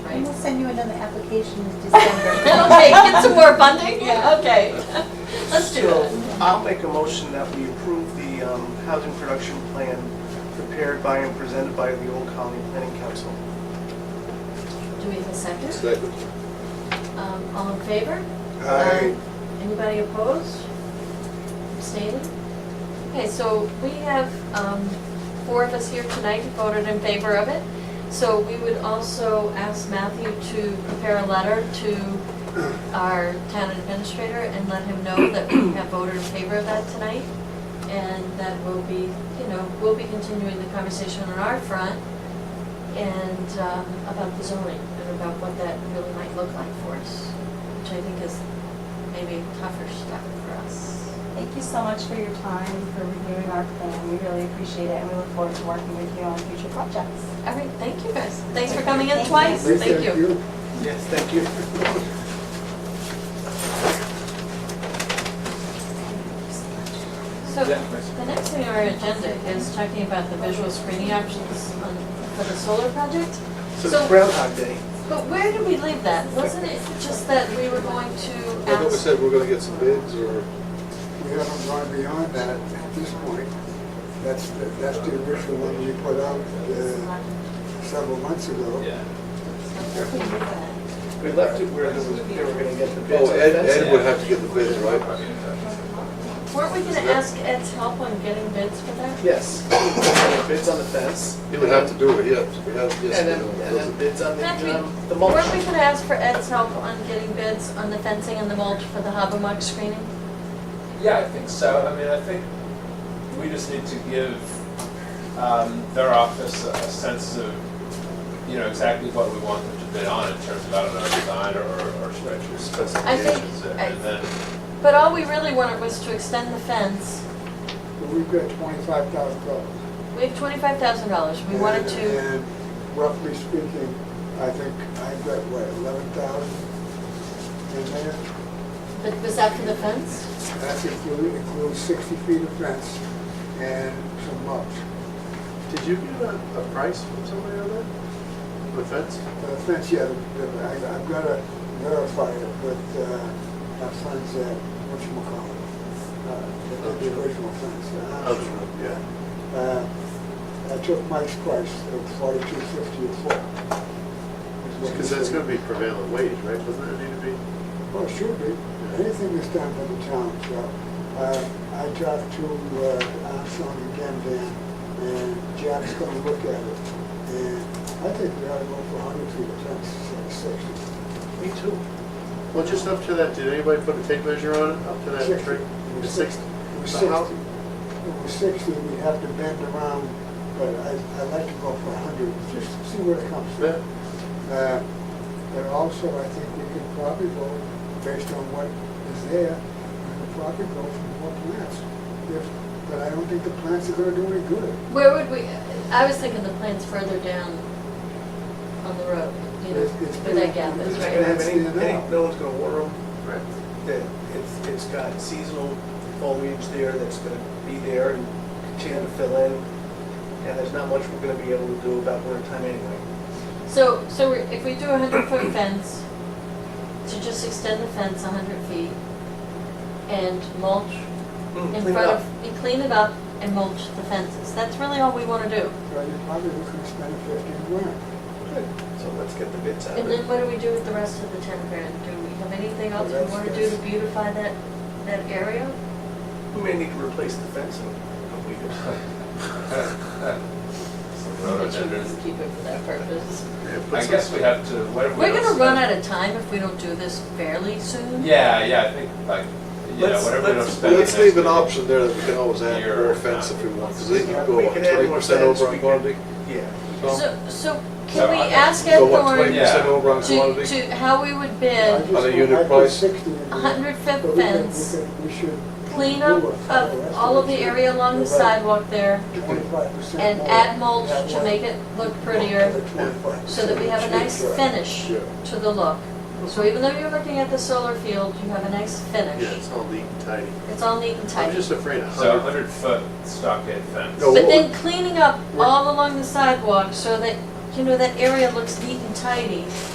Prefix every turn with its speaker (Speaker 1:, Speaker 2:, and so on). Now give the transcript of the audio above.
Speaker 1: And
Speaker 2: Okay.
Speaker 1: we'll send you another application in December.
Speaker 2: Okay, get some more funding?
Speaker 1: Yeah.
Speaker 2: Okay, let's do it.
Speaker 3: I'll make a motion that we approve the um, housing production plan prepared by and presented by the Old Colony Planning Council.
Speaker 2: Do we have a second?
Speaker 4: Second.
Speaker 2: Um, All in favor?
Speaker 4: Aye.
Speaker 2: Anybody opposed? Abstaining? Okay, so we have um, four of us here tonight who voted in favor of it. So we would also ask Matthew to prepare a letter to our town administrator and let him know that we have voted in favor of that tonight. And that will be, you know, we'll be continuing the conversation on our front and um, about the zoning and about what that really might look like for us, which I think is maybe tougher stuff for us.
Speaker 5: Thank you so much for your time, for reviewing our plan. We really appreciate it, and we look forward to working with you on future projects.
Speaker 2: All right, thank you guys. Thanks for coming in
Speaker 5: Thank you.
Speaker 2: twice. Thank you.
Speaker 3: Yes, thank you.
Speaker 2: So the next thing on our agenda is talking about the visual screening options on- for the solar project.
Speaker 3: So
Speaker 2: So-
Speaker 3: it's Groundhog Day.
Speaker 2: But where did we leave that? Wasn't it just that we were going to
Speaker 4: I thought we
Speaker 2: ask?
Speaker 4: said we're gonna get some bids or,
Speaker 6: We haven't gone beyond that at this point. That's, the- that's the original one we put out uh, several months ago.
Speaker 3: We left it where there was- they were going to get the bids.
Speaker 4: oh, Ed, Ed would have to get the bids, right?
Speaker 2: Weren't we gonna ask Ed's help on getting bids for that?
Speaker 3: Yes. Bids on the fence.
Speaker 4: He would have to do it, yes, we have,
Speaker 3: And
Speaker 4: yes.
Speaker 3: then,
Speaker 4: we know.
Speaker 3: and then bids on the,
Speaker 2: Matthew,
Speaker 3: um, the mulch.
Speaker 2: weren't we gonna ask for Ed's help on getting bids on the fencing and the mulch for the Habermuck screening?
Speaker 7: Yeah, I think so. I mean, I think we just need to give um, their office a a sense of, you know, exactly what we want them to bid on in terms of, I don't know, design or, or- or structure specifications.
Speaker 2: I-
Speaker 7: And then,
Speaker 2: But all we really wanted was to extend the fence.
Speaker 6: But We've got twenty-five thousand dollars.
Speaker 2: We have twenty-five thousand dollars. We wanted to,
Speaker 6: And roughly speaking, I think I've got, what, eleven thousand in there?
Speaker 2: but was that for the fence?
Speaker 6: That's included, includes sixty feet of fence and some mulch.
Speaker 4: Did you get a, a price from somebody on that? The fence?
Speaker 6: The fence, Uh, yeah, the- the- I- I've got to verify it with uh, our friends at, whatchamacallit, uh, that did the original fence. uh,
Speaker 4: Other one, yeah.
Speaker 6: Uh, I took Mike's price of forty-two fifty a foot. is what he
Speaker 4: Because that's
Speaker 6: said.
Speaker 4: gonna be prevailing wage, right? Doesn't it need to be?
Speaker 6: Well, it should be. Anything is done by the town, so. uh, I talked to uh, Armstrong again, Dan, and Jack's gonna look at it. And I think we ought to go for hundred feet of fence, instead of sixty.
Speaker 3: Me too.
Speaker 4: Well, just up to that, did anybody put a tape measure on it, up to that
Speaker 6: Sixty.
Speaker 4: tree?
Speaker 6: It was
Speaker 4: Six?
Speaker 6: sixty. It was
Speaker 4: So how-
Speaker 6: sixty. It was sixty, we have to bend around, but I, I like to go for hundred, just see where it comes
Speaker 4: Yeah.
Speaker 6: from. Uh, But also, I think we could probably go, based on what is there, we could probably go for more plants. If, but I don't think the plants are gonna do any good.
Speaker 2: Where would we, I was thinking the plant's further down on the road, you know,
Speaker 6: It's- it's
Speaker 2: where that gap
Speaker 6: pretty-
Speaker 2: is,
Speaker 3: It's
Speaker 6: it's
Speaker 3: not gonna
Speaker 2: right?
Speaker 3: have any,
Speaker 6: That's the
Speaker 3: any-
Speaker 6: amount.
Speaker 3: no one's gonna water them.
Speaker 4: Right.
Speaker 3: that it's, it's got seasonal foliage there that's gonna be there and continue to fill in, and there's not much we're gonna be able to do about winter time anyway.
Speaker 2: So, so we're- if we do a hundred foot fence, to just extend the fence a hundred feet and mulch in
Speaker 3: Clean it
Speaker 2: front
Speaker 3: up.
Speaker 2: of, and clean it up and mulch the fences, that's really all we wanna do.
Speaker 6: So you're probably looking to spend fifteen grand.
Speaker 3: Good. So let's get the bids out.
Speaker 2: And then what do we do with the rest of the ten grand? Do we have anything else we wanna do to beautify that, that area?
Speaker 3: We may need to replace the fence in a couple of years.
Speaker 2: Which we just keep it for that purpose.
Speaker 4: Yeah, put
Speaker 7: I
Speaker 4: some-
Speaker 7: guess we have to, what have we
Speaker 2: We're gonna
Speaker 7: don't
Speaker 2: run out
Speaker 7: spend-
Speaker 2: of time if we don't do this fairly soon.
Speaker 7: Yeah, yeah, I think like, you know,
Speaker 3: Let's-
Speaker 7: whatever we don't
Speaker 3: let's-
Speaker 7: spend.
Speaker 4: Let's
Speaker 7: next
Speaker 4: leave an
Speaker 7: week.
Speaker 4: option there that we can always add
Speaker 7: Here.
Speaker 4: more fence if we want, because they can
Speaker 3: We
Speaker 4: go
Speaker 3: can add more
Speaker 4: twenty percent
Speaker 3: fence,
Speaker 4: over
Speaker 3: we
Speaker 4: on
Speaker 3: can-
Speaker 4: quantity.
Speaker 3: Yeah.
Speaker 4: Tom?
Speaker 2: So, so
Speaker 7: So
Speaker 2: can we
Speaker 7: I-
Speaker 2: ask Ed
Speaker 4: Go what,
Speaker 2: Thorne
Speaker 4: twenty
Speaker 2: to,
Speaker 7: yeah.
Speaker 4: percent over on quantity?
Speaker 2: to, how we would
Speaker 6: I
Speaker 2: bid
Speaker 6: just-
Speaker 4: On a unit
Speaker 6: I put
Speaker 4: price?
Speaker 6: 60 in there,
Speaker 2: 100 foot
Speaker 6: but we could- we
Speaker 2: fence,
Speaker 6: could- We should.
Speaker 2: clean up
Speaker 6: do it.
Speaker 2: of all of the area along the
Speaker 6: You're right.
Speaker 2: sidewalk there
Speaker 6: Twenty-five percent.
Speaker 2: and add mulch to make it look prettier so that we have a nice finish
Speaker 4: Yeah.
Speaker 2: to the look. So even though you're looking at the solar field, you have a nice
Speaker 4: Yeah,
Speaker 2: finish.
Speaker 4: it's all neat and tidy.
Speaker 2: It's all neat and
Speaker 4: I'm
Speaker 2: tidy.
Speaker 4: just afraid a
Speaker 7: So a
Speaker 4: hundred
Speaker 7: hundred foot stockade fence.
Speaker 4: No.
Speaker 2: But then cleaning up
Speaker 4: We're-
Speaker 2: all along the sidewalk so that, you know, that area looks neat and tidy.